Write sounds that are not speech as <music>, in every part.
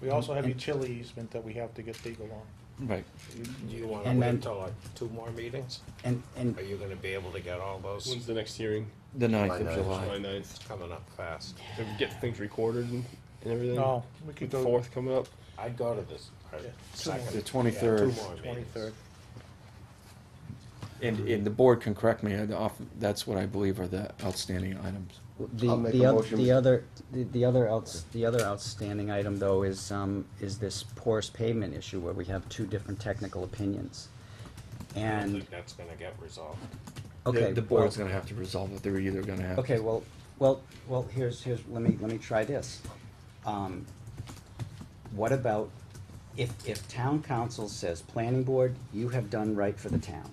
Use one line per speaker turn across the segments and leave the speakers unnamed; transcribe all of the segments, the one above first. We also have utility easement that we have to get legal on.
Right.
Do you wanna
And
wait
then-
until like two more meetings?
And, and,
Are you gonna be able to get all those?
When's the next hearing?
The ninth of
ninth.
July.
July ninth.
It's coming up fast.
So we get things recorded and, and everything.
No, Oh, we could
With
go-
Fourth coming up.
I'd go to this. uh,
Yeah, two
second-
more.
The
yeah,
23rd.
two
Oh,
more meetings.
Twenty-third.
And, and the board can correct me, I'd off- that's what I believe are the outstanding items.
the,
I'll make
the
a
other,
motion,
the
Mr.
other, the- the other outs, the other outstanding item though is, um, is this porous pavement issue where we have two different technical opinions.
I don't
And,
think that's gonna get resolved.
okay.
The- The
well-
board's gonna have to resolve it, they're either gonna have.
Okay, well, well, well, here's, here's, let me, let me try this. Um, What about if, if town council says, planning board, you have done right for the town.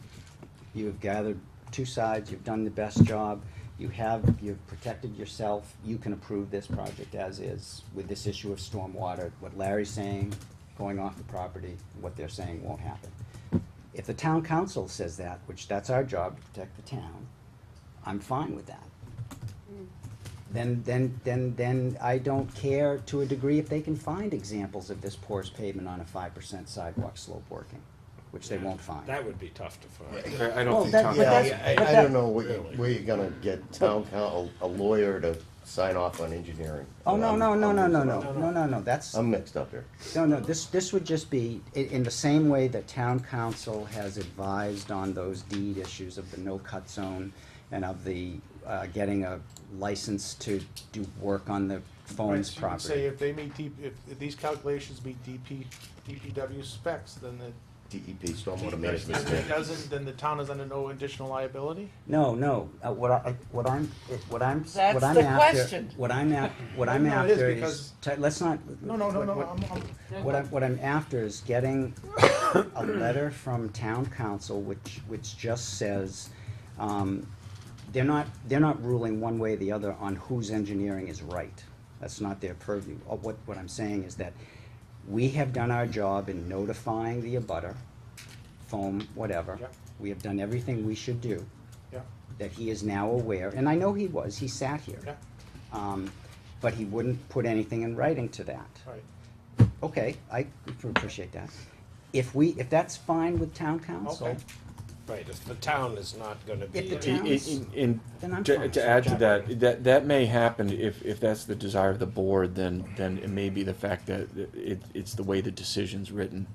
You have gathered two sides, you've done the best job, you have, you've protected yourself, you can approve this project as is with this issue of stormwater, what Larry's saying, going off the property, what they're saying won't happen. If the town council says that, which that's our job to protect the town, I'm fine with that. Then, then, then, then I don't care to a degree if they can find examples of this porous pavement on a five percent sidewalk slope working, which they won't find.
That would be tough to find.
I, I
Well, that- but
Yeah,
that's-
I,
but
I
that-
don't know what you, where you're gonna get town council, a lawyer to sign off on engineering.
Oh, no, no, no, no, no, no,
I'm-
no, no, no, that's,
I'm mixed up here.
no, no, this, this would just be, in, in the same way that town council has advised on those deed issues of the no-cut zone and of the, uh, getting a license to do work on the phones
Right, so you
property.
can Say if they meet D, if, if these calculations meet DP, DPW specs, then the,
DEP, E stormwater management.
if it
standard.
doesn't, then the town is under no additional liability?
No, no, uh, what I, what I'm, what I'm,
That's
what I'm
the
after,
question.
what I'm at, what I'm
<laughs> No, it is
after is,
because-
t- let's not.
No, no, no,
what-
no,
what-
I'm, I'm,
What I'm, what I'm after is getting a letter from town council, which, which just says, um, they're not, they're not ruling one way or the other on whose engineering is right. That's not their purview. Uh, What, what I'm saying is that we have done our job in notifying the abutter, foam, whatever.
Yep.
We have done everything we should do,
yeah,
that he is now aware, and I know he was, he sat here.
yeah,
Um, but he wouldn't put anything in writing to that.
right.
Okay, I appreciate that. If we, if that's fine with town council,
Okay.
Right, if the town is not gonna be.
If the
in-
town-
And
Then I'm
to,
fine.
to add to that, that, that may happen if, if that's the desire of the board, then, then it may be the fact that it, it's the way the decision's written.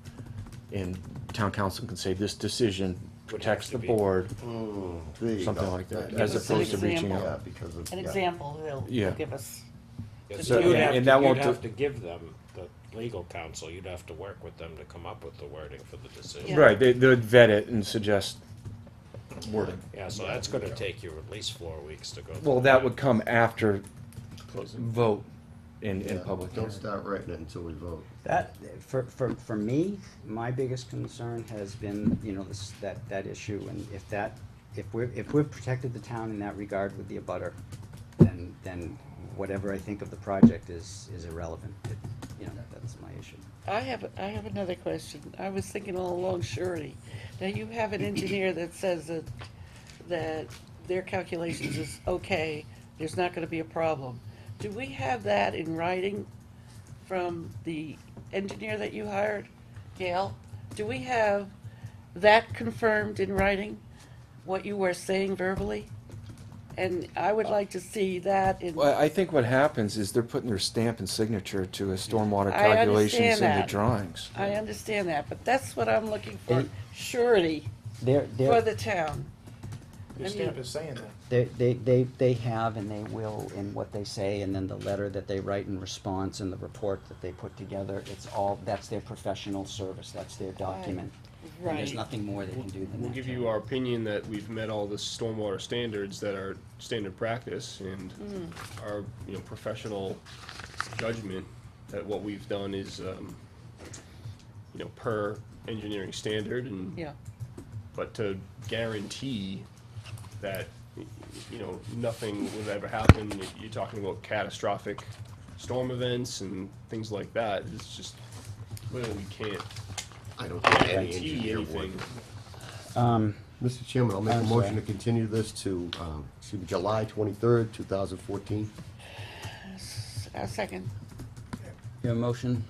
And town council can say this decision protects
to
the
be-
board,
There you
something
go.
like that,
Yeah,
as
Give us an
opposed to reaching
example.
Yeah,
out.
because of.
An
yeah.
example they'll
Yeah.
they'll give us.
Yeah,
Just
so
do
you'd
it.
have
And
to-
that won't
You'd have
do-
to give them, the legal counsel, you'd have to work with them to come up with the wording for the
Yeah.
decision.
Right, they, they'd vet it and suggest wording.
Yeah, so that's gonna take you at least four weeks to go. through
Well, that would come after
Closing.
vote in, in
Yeah,
public hearing.
Don't start writing it until we vote.
that, for, for, for me, my biggest concern has been, you know, this, that, that issue, and if that, if we're, if we've protected the town in that regard with the abutter, then, then whatever I think of the project is, is irrelevant, It- you know, that's my issue.
I have, I have another question. I was thinking all along surety. Now you have an engineer that says that, that their calculations is okay, there's not gonna be a problem. Do we have that in writing from the engineer that you hired, Gail? Do we have that confirmed in writing, what you were saying verbally? And I would like to see that in.
Uh, Well, I think what happens is they're putting their stamp and signature to a stormwater
I understand
calculations in the
that.
drawings.
I understand that, but that's what I'm looking for,
And-
surety
They're, they're.
for the town.
Your
I
stamp
mean-
is saying that.
They, they, they, they have and they will in what they say and then the letter that they write in response and the report that they put together, it's all, that's their professional service, that's their document. And there's
Right.
nothing more they can do than that.
We'll give you our opinion that we've met all the stormwater standards that are standard practice and our, you know, professional judgment that what we've done is, um, you know, per engineering standard and
Yeah,
but to guarantee that, you know, nothing would ever happen, you're talking about catastrophic storm events and things like that, it's just, well, we can't
I don't think any
guarantee
engineer would.
anything.
Mr. Chairman, I'll make a
I'm
motion to
sorry.
continue this to, um, excuse me, July twenty-third, two thousand fourteen.
S- a second.
Your motion?